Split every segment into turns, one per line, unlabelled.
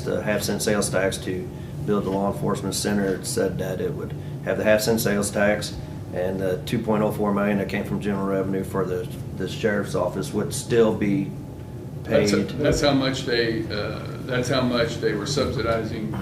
the half cent sales tax to build the law enforcement center. It said that it would have the half cent sales tax and the two point oh four million that came from general revenue for the, the sheriff's office would still be
That's,
paid.
that's how much they, uh, that's how much they were subsidizing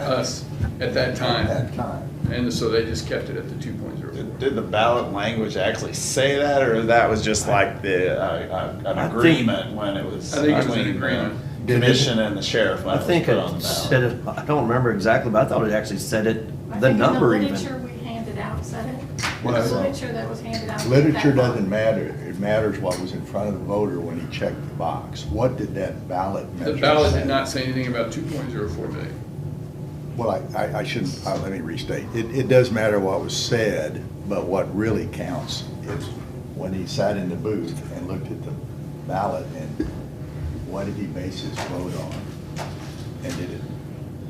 us at that time.
That time.
And so they just kept it at the two point zero
Did
four.
did the ballot language actually say that, or that was just like the, uh, uh, an
I think-
agreement when it was?
I think it was an
between the
agreement.
Commission and the sheriff when
I
it was
think
put on
it
the
said,
ballot.
it- I don't remember exactly, but I thought it actually said it,
I
the
think in
number even.
literature we handed out, said it?
What
The
is it?
literature that was handed out.
Literature
that one.
doesn't matter. It matters what was in front of the voter when he checked the box. What did that ballot measure
The ballot
say?
did not say anything about two point zero four million.
Well, I- I, I shouldn't, uh, let me restate. It, it does matter what was said, but what really counts is when he sat in the booth and looked at the ballot and what did he base his vote on? And did it,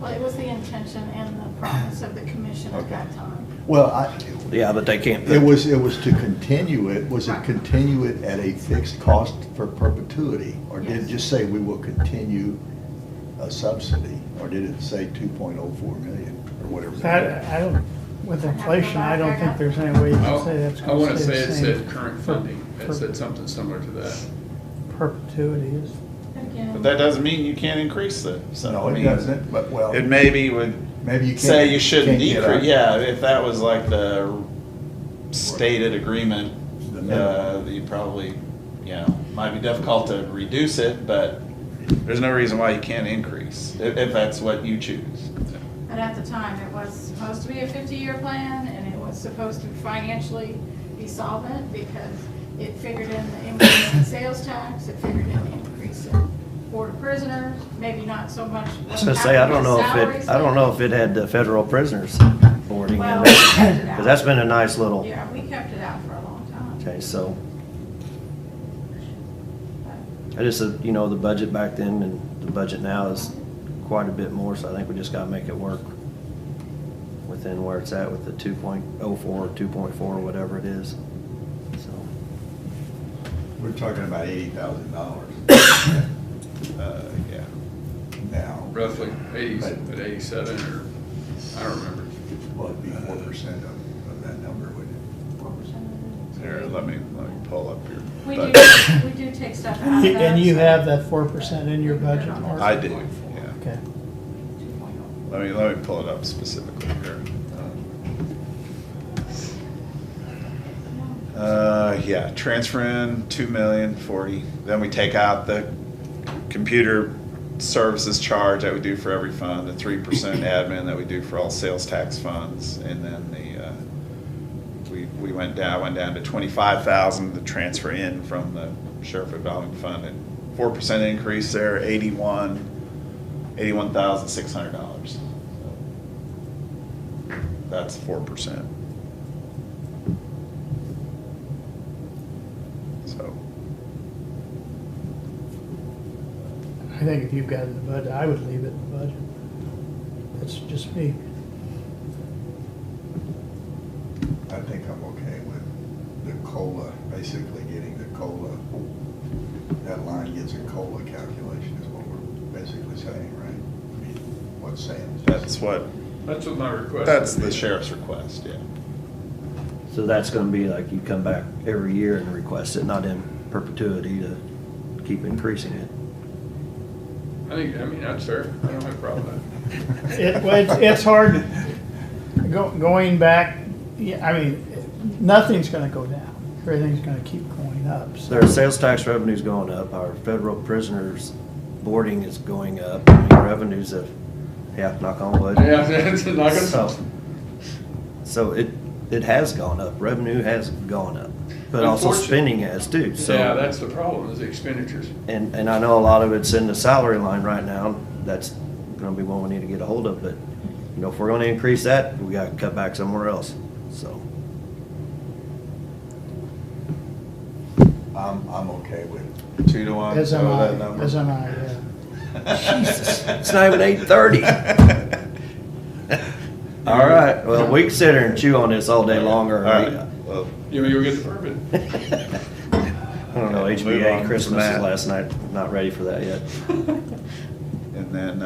Well, it was the intention and the promise of the commission at that time.
well, I,
Yeah, but they can't. put-
it was, it was to continue it, was it
Right.
continue it at a fixed cost for perpetuity? Or did it
Yes.
just say we will continue a subsidy? Or did it say two point oh four million or whatever?
So I, I don't, with inflation, I don't think there's any way you can say that's
I
gonna
wanna
stay
say
the
it
same.
said current
for-
funding, it
for
said something similar to that.
Perpetuity is,
Again,
But that doesn't mean you can't increase it, so.
No,
I
it
mean,
doesn't, but well.
It maybe would
Maybe you can't.
say you shouldn't
can't get
decrease,
a-
yeah, if that was like the stated agreement,
The
uh,
minimum.
that you probably, you know, might be difficult to reduce it, but there's no reason why you can't increase, if, if that's what you choose.
And at the time, it was supposed to be a 50-year plan, and it was supposed to financially be solvent because it figured in the increase in sales tax, it figured in the increase in board of prisoners, maybe not so much.
I was gonna say, I don't know if
salaries,
it, I don't know if it had the federal prisoners boarding in
Well,
there.
we kept it
Cause that's
out.
been a nice little,
Yeah, we kept it out for a long time.
okay, so. I just, said, you know, the budget back then and the budget now is quite a bit more, so I think we just gotta make it work within where it's at with the two point oh four, two point four, whatever it is, so.
We're talking about eighty thousand dollars
Uh, yeah.
now,
Roughly eighty, but eighty-seven or, I don't remember.
well, it'd be four percent of, of that number, wouldn't it?
Four percent of the-
Here, let me, let me pull up your.
We do,
budget.
we do take stuff out of that.
and you have that four percent in your budget, Mark?
I do, yeah.
Okay.
Let me, let me pull it up specifically here.
oh.
Uh, yeah, transfer in two million forty, then we take out the computer services charge that we do for every fund, the three percent admin that we do for all sales tax funds, and then the, uh, we, we went down, went down to twenty-five thousand, the transfer in from the sheriff revolving fund, and four percent increase there, eighty-one, eighty-one thousand six hundred dollars. That's four percent. So,
I think if you've got it in the budget, I would leave it in the budget. That's just me.
I think I'm okay with the COLA, basically getting the COLA. That line gets a COLA calculation is what we're basically saying, right? I mean, What's saying?
that's what,
That's what my request.
that's
would
the
be.
sheriff's request, yeah.
So that's gonna be like you come back every year and request it, not in perpetuity to keep increasing it.
I think, I mean, that's fair, I don't have a problem with that.
It, well, it's, it's hard, go, going back, yeah, I mean, nothing's gonna go down. Everything's gonna keep going up, so.
Their sales tax revenue's going up, our federal prisoners boarding is going up, I mean, revenues have, yeah, knock on wood.
Yeah, it's not gonna
So- So it, it has gone up, revenue has gone up, but also
Unfortunate-
spending has too, so.
Yeah, that's the problem, is the expenditures.
And, and I know a lot of it's in the salary line right now, that's gonna be one we need to get a hold of, but, you know, if we're gonna increase that, we gotta cut back somewhere else, so.
I'm, I'm okay with it.
Two to one,
As am
oh, that
I,
number.
as am I, yeah.
Jesus, it's not even 8:30. All right, well, we can sit here and chew on this all day longer.
All right, well,
You know, you'll get the permit.
I don't know,
Okay, move on
HBA
from
Christmas is
that.
last night, not ready for that yet.
and then